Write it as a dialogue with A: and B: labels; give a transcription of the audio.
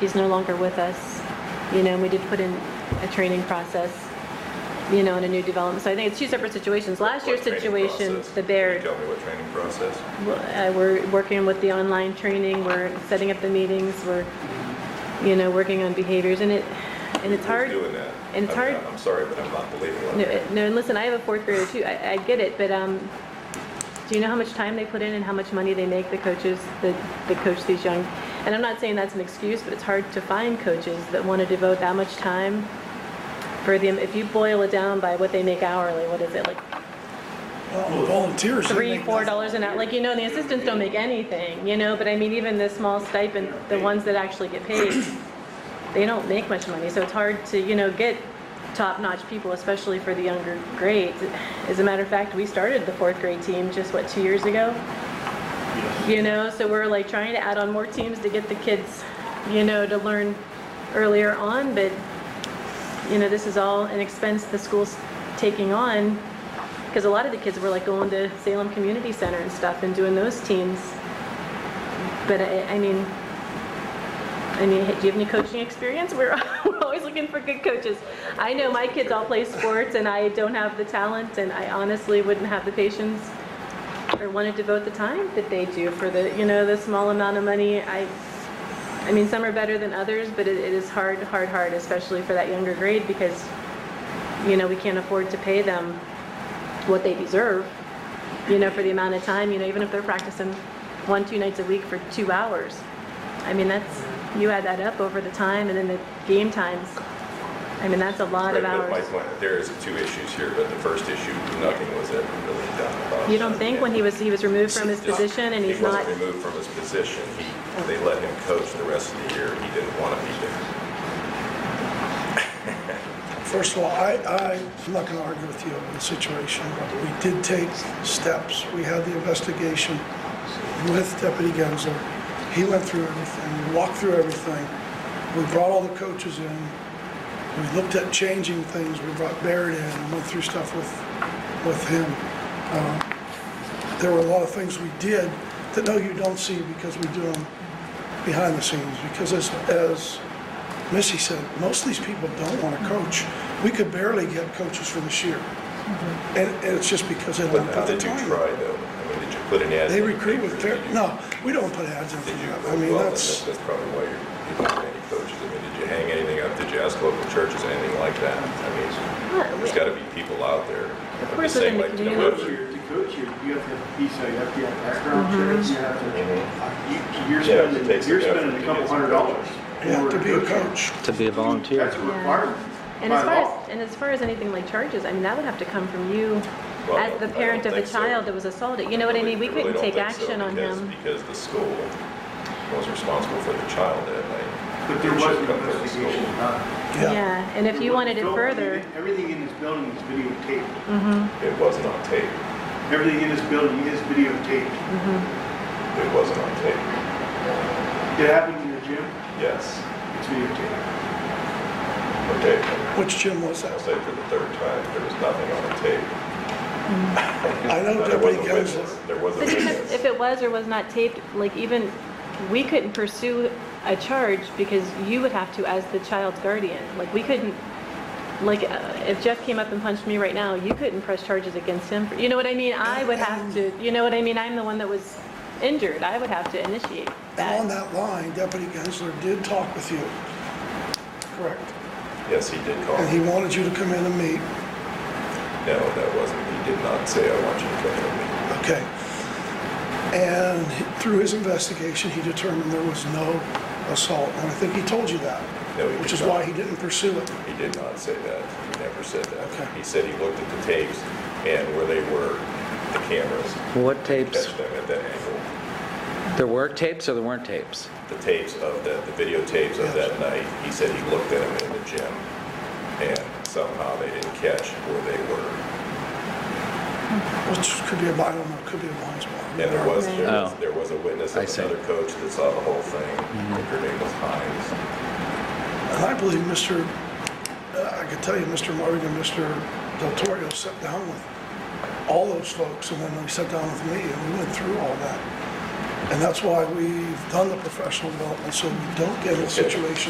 A: he's no longer with us, you know, and we did put in a training process, you know, in a new development. So I think it's two separate situations. Last year's
B: What training
A: situation,
B: process?
A: the
B: Can
A: Baird,
B: you tell me what training process?
A: uh, we're working with the online training, we're setting up the meetings, we're, you know, working on behaviors, and it, and it's
B: Who's
A: hard.
B: doing that?
A: and it's
B: I mean,
A: hard-
B: I'm sorry, but I'm not believing
A: No,
B: what.
A: uh, no, and listen, I have a fourth grader too. I, I get it, but um, do you know how much time they put in and how much money they make? The coaches that that coach these young, and I'm not saying that's an excuse, but it's hard to find coaches that want to devote that much time for them. If you boil it down by what they make hourly, what is it like
C: Well, Volunteers. they
A: three,
C: make
A: four
C: nothing.
A: dollars an hour? Like you know, and the assistants don't make anything, you know. But I mean, even the small stipend, the ones that actually get paid, they don't make much money. So it's hard to you know get top-notch people, especially for the younger grades. As a matter of fact, we started the fourth grade team just what two years ago. You know, so we're like trying to add on more teams to get the kids, you know, to learn earlier on. But you know, this is all an expense the school's taking on because a lot of the kids were like going to Salem Community Center and stuff and doing those teams. But I, I mean, I mean, do you have any coaching experience? We're, we're always looking for good coaches. I know my kids all play sports and I don't have the talent and I honestly wouldn't have the patience or want to devote the time that they do for the, you know, the small amount of money. I, I mean, some are better than others, but it, it is hard, hard, hard, especially for that younger grade because, you know, we can't afford to pay them what they deserve, you know, for the amount of time, you know, even if they're practicing one, two nights a week for two hours. I mean, that's, you add that up over the time and then the game times. I mean, that's a lot
B: Right,
A: of
B: but My
A: hours.
B: point, there is two issues here, but the first issue, nothing was ever really done about.
A: You don't think when he was, he was removed from his
B: Just-
A: position and he's not,
B: He wasn't removed from his position. He, they let him coach the rest of the year. He didn't want to be there.
C: First of all, I, I- I'm not going to argue with you on the situation, but we did take steps. We had the investigation with Deputy Gensler. He went through everything, we walked through everything. We brought all the coaches in. We looked at changing things. We brought Barrett in and went through stuff with, with him. Uh, There were a lot of things we did that, no, you don't see because we do them behind the scenes. Because as, as Missy said, most of these people don't want to coach. We could barely get coaches for this year. And and it's just because they
B: But Mm-hmm. how
C: don't put the
B: did you
C: time. in.
B: try though? I mean, did you put an ad?
C: They
B: in the
C: recruit with,
B: papers?
C: fair-
B: Did you-
C: no, we don't put ads in for
B: Did you,
C: that. I
B: well,
C: mean,
B: then
C: that's,
B: that's, that's probably why you're, you don't have any coaches. I mean, did you hang anything up? Did you ask local churches, anything like that? I mean,
A: Huh,
B: there's
A: we-
B: gotta be people out there.
A: Of
B: I'm
A: course,
B: just saying,
A: within the
B: like, you know,
A: community.
D: coach here, to coach here, you have to have PSA, you have to have background
A: Mm-hmm.
D: checks, you have to, you- you're
B: Mm-hmm. Yeah, it
D: spending,
B: takes
D: you're
B: effort to
D: spending a couple
B: get some
D: hundred dollars. in
C: yeah,
D: order
C: to be a coach.
E: to be a volunteer.
D: That's a requirement
A: and
D: by
A: as far
D: law.
A: as, and as far as anything like charges, I mean, that would have to come from you
B: Well,
A: as
B: I
A: the
B: don't
A: parent of the
B: think so.
A: child that was assaulted. You know what I mean? We
B: really
A: couldn't
B: don't
A: take
B: think so
A: action on
B: because-
A: him.
B: Because the school was responsible for the child that night.
D: But there
B: It
D: was
B: should've
D: an
B: come from the school.
D: investigation done.
C: Yeah,
A: Yeah, and if
D: There
A: you
D: was
A: wanted it
D: film-
A: further,
D: Everything in this building is videotaped.
B: It wasn't on tape.
D: Everything in this building is videotaped.
B: It wasn't on tape.
D: It happened in the gym,
B: Yes.
D: it's videotaped.
B: Okay.
C: which gym was
B: I'll
C: that?
B: say for the third time, there was nothing on the tape.
C: I know
B: Now, There was
C: Deputy
B: a
C: Gensler.
B: witness. There was a
A: But even if,
B: witness.
A: if it was or was not taped, like even, we couldn't pursue a charge because you would have to as the child's guardian. Like, we couldn't, like, uh, if Jeff came up and punched me right now, you couldn't press charges against him. You know what I mean? I would have to, you know what I mean? I'm the one that was injured. I would have to initiate
C: And on
A: that.
C: that line, Deputy Gensler did talk with you. Correct.
B: Yes, he did call.
C: And he
B: No,
C: wanted you to come in and meet.
B: that wasn't, he did not say, I want you to come with me.
C: Okay. And through his investigation, he determined there was no assault. And I think he told you that,
B: No, he
C: which
B: did
C: is
B: not.
C: why he didn't pursue it.
B: He did not say that. He never said
C: Okay.
B: that. He said he looked at the tapes and where they were, the cameras,
E: What
B: catch
E: tapes?
B: them at that angle.
E: There were tapes or there weren't tapes?
B: the tapes of the, the videotapes of that night, he said he looked at them in the gym, and somehow they didn't catch where they were.
C: Which could be a, I don't know, could be a blind spot.
B: And there was, there was,
E: Oh.
B: there was a witness
E: I
B: of
E: see. Mm-hmm.
B: another coach that saw the whole thing, I think her name was Hines.
C: And I believe Mr., uh, I could tell you, Mr. Morgan and Mr. Del Torrio sat down with all those folks, and then they sat down with me, and we went through all that. And that's why we've done the professional development, so we don't get in a situation